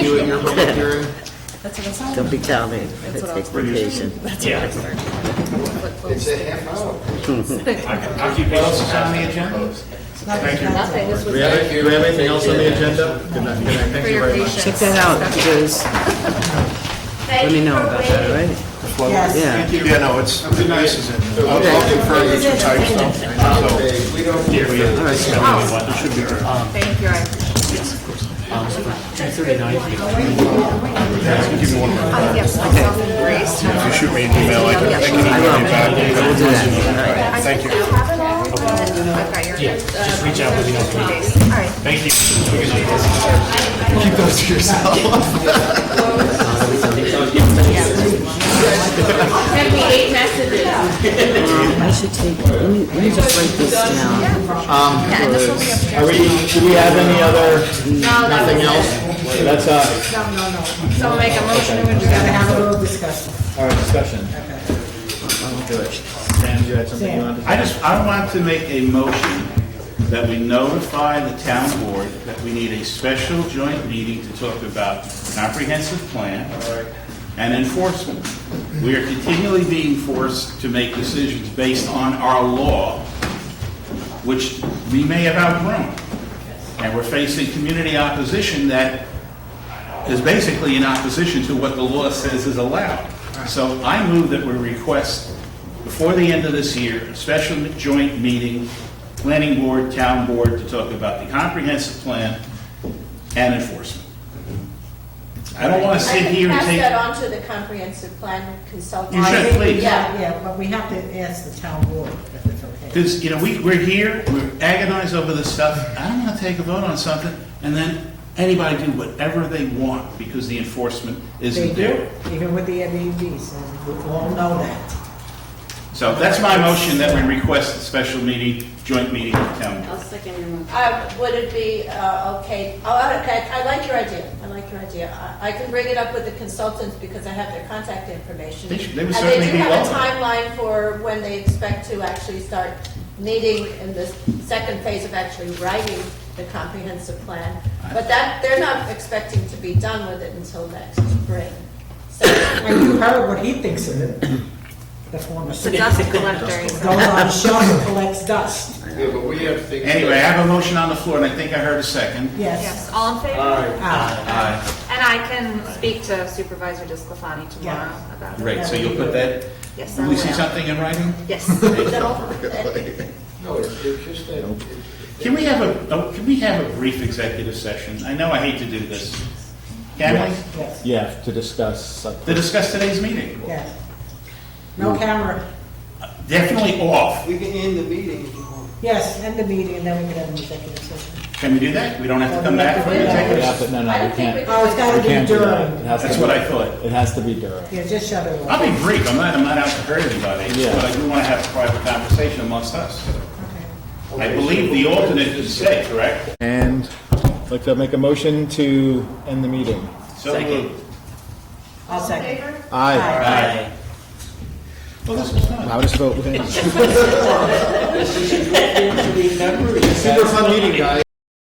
public hearing? That's what it sounds Don't be telling, That's it's what I was vacation. That's Yeah. It's a half hour. I'll keep What else is on the agenda? Nothing, this Do was we have, do we have anything else on the agenda? Good night, good night, thank you very much. Check that out, because, let me know about that, all right? Yeah, Yeah, no, it's, this is it. So we're Okay. looking for the type stuff. Okay, We don't. all right, so Thank you, I appreciate it. Yes. Two thirty-nine. Yes, myself and Grace. If you shoot me an email, I can, I can I email you back. will, I will do that, I Thank think I have it all, but I've got your. Yeah, just reach out with me. All right. Thank you. Send me eight messages. all right. I should take, let me, let me just write this down. Yeah, and this will be upstairs. Are we, do we have any other, nothing else? That's, uh, So make a motion to adjourn. our discussion. Sam, you had something you wanted to say? I just, I want to make a motion that we notify the town board that we need a special joint meeting to talk about comprehensive plan and enforcement. We are continually being forced to make decisions based on our law, which we may have outgrown. And we're facing community opposition that is basically in opposition to what the law says is allowed. So I move that we request, before the end of this year, a special joint meeting, planning board, town board, to talk about the comprehensive plan and enforcement. I don't want to I sit can here and pass that take, on to the comprehensive plan consultant. You should, please. Yeah. Yeah, but we have to ask the town board if it's okay. because, you know, we, we're here, we agonize over this stuff. I don't want to take a vote on something, and then anybody do whatever they want, because the enforcement They isn't do, there. even with the Airbnbs, and we all know that. So that's my motion, that we request a special meeting, joint meeting with town board. Uh, Would it be, uh, okay, oh, okay, I like your idea, I like your idea. I I can bring it up with the consultants because I have their contact information. They should- they would certainly be And they do welcome. have a timeline for when they expect to actually start meeting in the second phase of actually writing the comprehensive plan. But that, they're not expecting to be done with it until next spring. So And you heard what he thinks of it, the former The city. dust collector. Goes on a shelf and collects dust. Yeah, but we have things. Anyway, I have a motion on the floor, and I think I heard a second. Uh, Yes. Yes, all in favor? Ah, Aye. And I can speak to Supervisor Disclafani tomorrow Yeah. about it. Great, so you'll put that, Yes, I will we see will. something in writing? Yes. No, it's it's just that. it's- Can we have a, oh, can we have a brief executive session? I know I hate to do this. Can we? Yes, Yeah, to discuss. uh, To discuss today's meeting. yes. No camera. Definitely off. We can end the meeting if you want. Yes, end the meeting, and then we can have an executive session. Can we do that? We don't have to come back for an executive Yeah, session? but no, I no, don't we think can't. Oh, it's gotta We be can't do that. It during. has to That's be- what I thought. It has to be during. Yeah, just shut it off. I'll be brief, I'm not, I'm not out to hurt anybody, Yeah. but I do want to have a private conversation amongst us. I believe the alternate is safe, correct? And I'd like to make a motion to end the meeting. So moved. I'll second. Aye. Aye. Well, this was fun. Loudest vote. Super fun meeting, guys.